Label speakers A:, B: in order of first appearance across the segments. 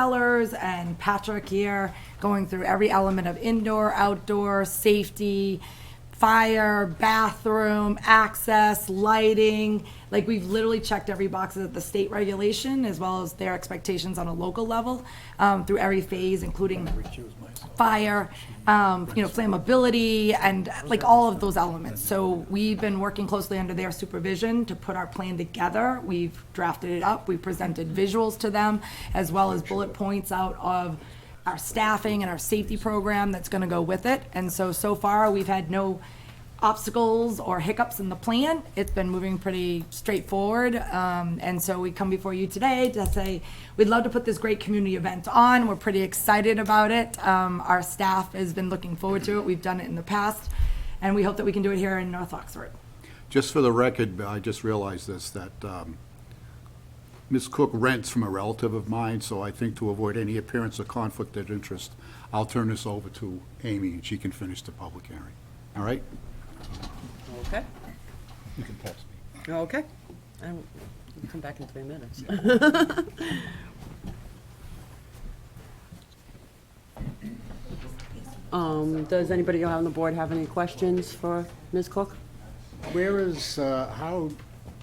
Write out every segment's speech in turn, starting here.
A: Sellers and Patrick here, going through every element of indoor, outdoor, safety, fire, bathroom, access, lighting. Like, we've literally checked every box that the state regulation, as well as their expectations on a local level, um, through every phase, including fire, um, you know, flammability, and like all of those elements. So we've been working closely under their supervision to put our plan together. We've drafted it up, we presented visuals to them, as well as bullet points out of our staffing and our safety program that's gonna go with it. And so, so far, we've had no obstacles or hiccups in the plan. It's been moving pretty straightforward. Um, and so we come before you today to say, we'd love to put this great community event on. We're pretty excited about it. Um, our staff has been looking forward to it. We've done it in the past. And we hope that we can do it here in North Oxford.
B: Just for the record, I just realized this, that um, Ms. Cook rents from a relative of mine, so I think to avoid any appearance of conflict of interest, I'll turn this over to Amy, and she can finish the public hearing. All right?
C: Okay,
B: You can pass me.
C: okay. I will- we'll Come back in three minutes. Um, Does anybody on the board have any questions for Ms. Cook?
D: Where is, uh, how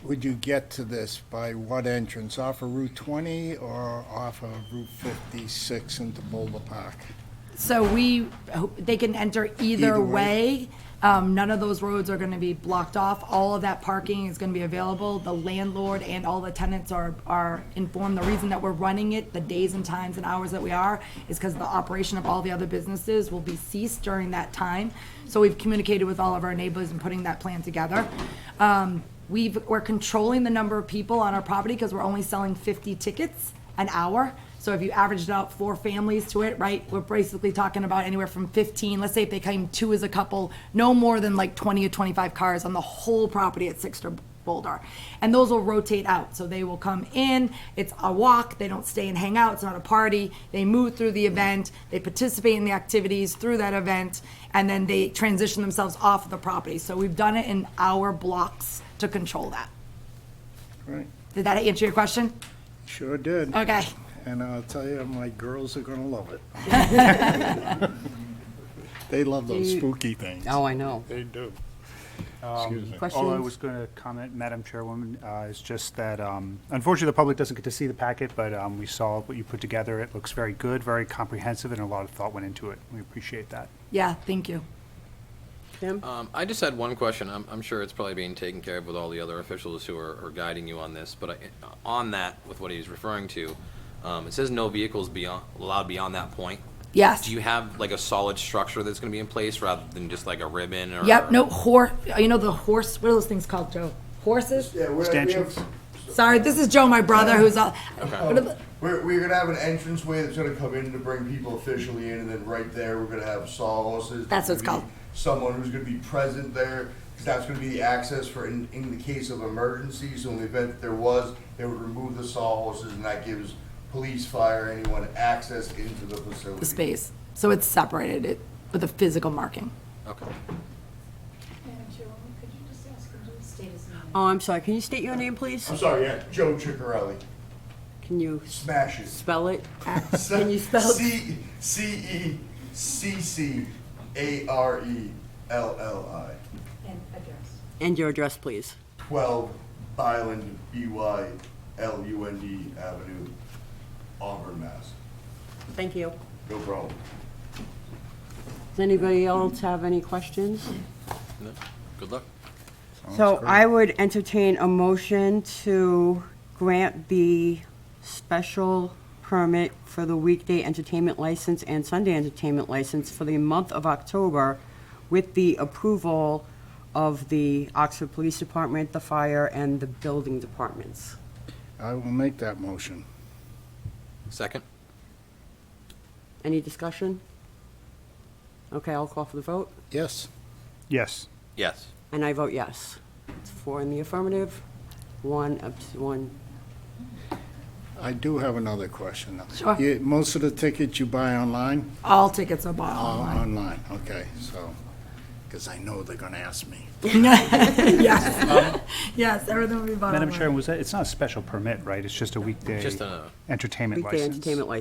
D: would you get to this? By what entrance? Off of Route 20 or off of Route 56 into Boulder Park?
A: So we, they can enter either
D: Either
A: way.
D: way.
A: Um, none of those roads are gonna be blocked off. All of that parking is gonna be available. The landlord and all the tenants are, are informed. The reason that we're running it, the days and times and hours that we are, is because the operation of all the other businesses will be ceased during that time. So we've communicated with all of our neighbors and putting that plan together. Um, we've, we're controlling the number of people on our property because we're only selling fifty tickets an hour. So if you averaged out four families to it, right, we're basically talking about anywhere from 15, let's say if they came two as a couple, no more than like 20 or 25 cars on the whole property at Sixter Boulder. And those will rotate out. So they will come in, it's a walk, they don't stay and hang out, it's not a party. They move through the event, they participate in the activities through that event, and then they transition themselves off of the property. So we've done it in hour blocks to control that.
D: Right,
A: Did that answer your question?
D: sure did.
A: Okay.
D: And I'll tell you, my girls are gonna love it. They love those
C: you-
D: spooky things.
C: Oh, I know.
E: They do.
D: Excuse me.
C: Questions?
E: All I was going to comment, Madam Chairwoman, uh, is just that um, unfortunately, the public doesn't get to see the packet, but um, we saw what you put together. It looks very good, very comprehensive, and a lot of thought went into it. We appreciate that.
A: Yeah, thank you.
C: Tim?
F: Um, I just had one question. I'm, I'm sure it's probably being taken care of with all the other officials who are, are guiding you on this, but I, on that, with what he's referring to, um, it says no vehicles beyond, allowed beyond that point.
A: Yes.
F: Do you have like a solid structure that's gonna be in place rather than just like a ribbon or?
A: Yep, no, horse, you know the horse, what are those things called, Joe? Horses?
G: Yeah, we're, we
E: Stanchions.
G: have,
A: Sorry, this is Joe, my brother, who's, all- what are the-
G: we're, we're gonna have an entrance way that's gonna come in to bring people officially in, and then right there, we're gonna have sawhorses.
A: That's what
G: There's
A: it's
G: gonna
A: called.
G: be Someone who's gonna be present there, 'cause that's gonna be the access for, in, in the case of emergencies, so in the event that there was, they would remove the sawhorses, and that gives police, fire, anyone access into the facility.
A: the space. So it's separated it with a physical marking.
F: Okay.
H: Madam Chairwoman, could you just ask him to state his name?
C: Oh, I'm sorry, can you state your name, please?
G: I'm sorry, yeah, Joe Chicarelli,
C: Can you s-
G: smash it.
C: spell it? Can you spell it?
G: C, C E C C A R E L L I.
H: And address.
C: And your address, please.
G: 12 Byland, B-Y-L-U-N-D Avenue, Auburn, Mass.
C: Thank you.
G: No problem.
C: Does anybody else have any questions?
F: No? Good luck.
C: So I would entertain a motion to grant the special permit for the weekday entertainment license and Sunday entertainment license for the month of October with the approval of the Oxford Police Department, the fire, and the building departments.
D: I will make that motion.
F: Second?
C: Any discussion? Okay, I'll call for the vote,
D: Yes,
E: Yes.
F: Yes.
C: and I vote yes. It's four in the affirmative, one, abs- one,
D: I do have another question.
A: Sure.
D: You- Most of the tickets you buy online?
A: All tickets are bought
D: Oh,
A: online.
D: Online, okay, so, because I know they're gonna ask me.
A: Yes. Yes, everything will be bought online.
E: Madam Chairwoman, was that, it's not a special permit, right? It's just a weekday
F: Just a-
E: entertainment license.
C: weekday entertainment license.